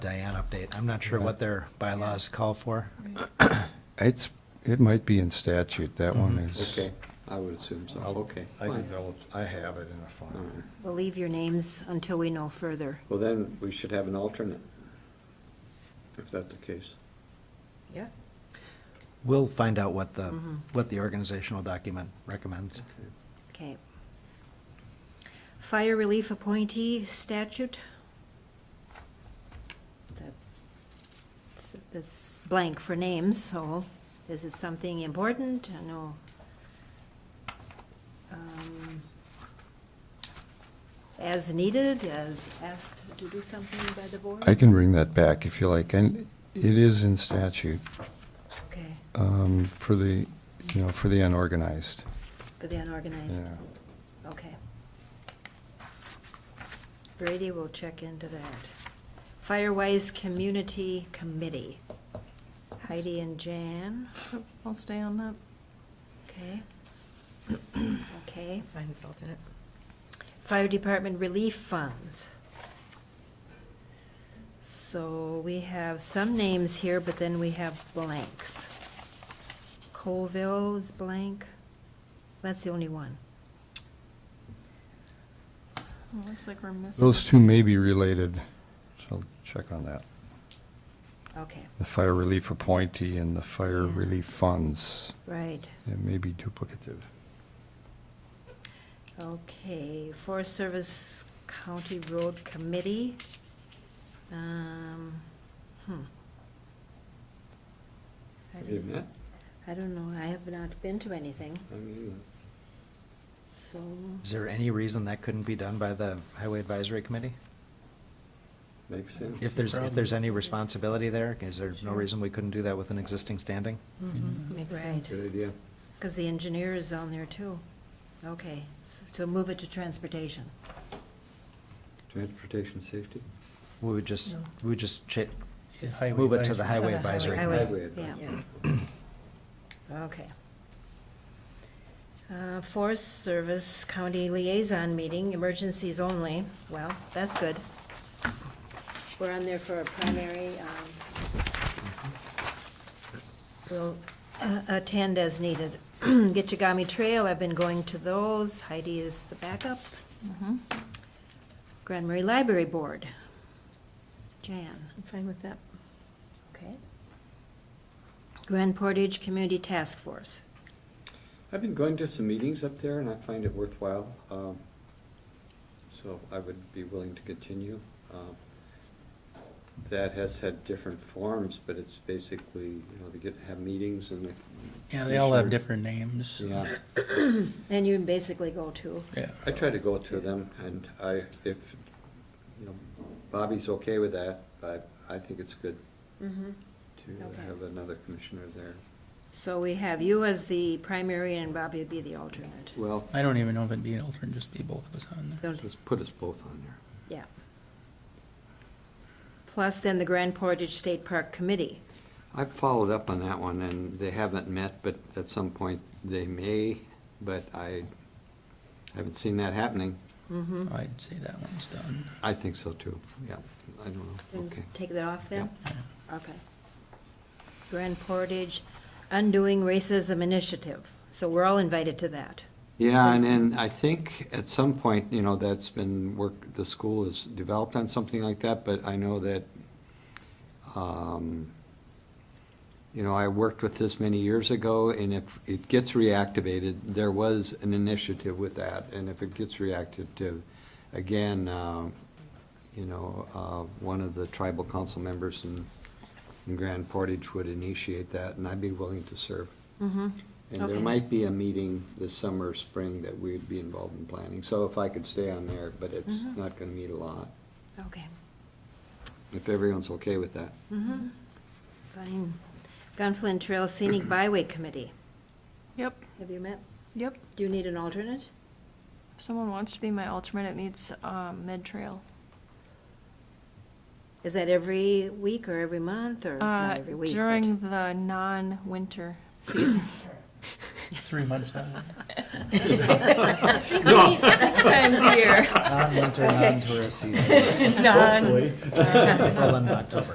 Diane update. I'm not sure what their bylaws call for. It's, it might be in statute, that one is. Okay, I would assume so, Mm-hmm. okay, I fine. developed, I have it in a All file. right. We'll leave your names until we know further. Well, then, we should have an alternate, if that's the case. Yeah. We'll find out what the, what the organizational document recommends. Okay. Fire relief appointee statute. That's- That's blank for names, so is it something important? I know. um, As needed, as asked to do something by the board? I can bring that back if you like, and it is in statute Okay, um, for the, you know, for the unorganized. for the unorganized, Yeah. okay. Brady will check into that. Firewise Community Committee. Heidi and Jan, I'll stay on that. okay. Okay. Find this alternate. Fire Department Relief Funds. So we have some names here, but then we have blanks. Colville is blank. That's the only one. Well, Looks like we're missing. Those two may be related, so I'll check on that. Okay, The fire relief appointee and the fire Yeah. relief funds, right. it may be duplicative. Okay, Forest Service County Road Committee. Um, hmm. I Have you don't- met? I don't know, I have not been to anything, I mean, so, Is there any reason that couldn't be done by the Highway Advisory Committee? makes sense. If there's, if there's any responsibility there, is there no reason we couldn't do that with an existing standing? Makes Right. sense. Good idea. because the engineer is on there too. Okay, s- so move it to transportation. Transportation safety? We would just, No. we would just cha- move it to the Highway Highway. Advisory. Highway. Committee. Highway Yeah, advisory. Yeah. okay. Uh, Forest Service County Liaison Meeting, emergencies only, well, that's good. We're on there for a primary, um, we'll uh, attend as needed. Getchagami Trail, I've been going to those, Heidi is the backup. Mhm. Grand Marais Library Board, Jan. I'm fine with that. Okay. Grand Portage Community Task Force. I've been going to some meetings up there, and I find it worthwhile, um, so I would be willing to continue. Um, That has had different forms, but it's basically, you know, they get, have meetings and. they- Yeah, they all have Sure. different names. Yeah. And you basically go to, Yeah. I try to go to them, and I, if, you know, Bobby's okay with that, I, I think it's good Okay. to have another commissioner there. so we have you as the primary and Bobby would be the alternate. Well, I don't even know if it'd be an alternate, just be both of us on there. Don't- just put us both on there. Yeah. Plus then the Grand Portage State Park Committee. I've followed up on that one, and they haven't met, but at some point they may, but I haven't seen that happening. I'd say that one's done. I think so too, yeah, I don't know, And okay. Take that off then? Okay. Grand Portage Undoing Racism Initiative. So we're all invited to that. Yeah, and then I think at some point, you know, that's been work, the school has developed on something like that, but I know that, um, you know, I worked with this many years ago, and if it gets reactivated, there was an initiative with that, and if it gets reacted to, again, um, you know, uh, one of the tribal council members in, in Grand Portage would initiate that, and I'd be willing to serve. Mm-hmm. And there Okay. might be a meeting this summer, or spring, that we'd be involved in planning, so if I could stay on there, but it's Mhm. not gonna meet a lot, Okay. if everyone's okay with that. Mm-hmm. Fine. Gunflint Trail Scenic Byway Committee. Yep, Have you met? yep. Do you need an alternate? If someone wants to be my alternate, it needs um, mid-trail. Is that every week or every month or Uh, not every week? but- During the non-winter seasons. Three months out. We meet six times a year. Non-winter, non-tourist seasons. None. Hopefully. Well, in October.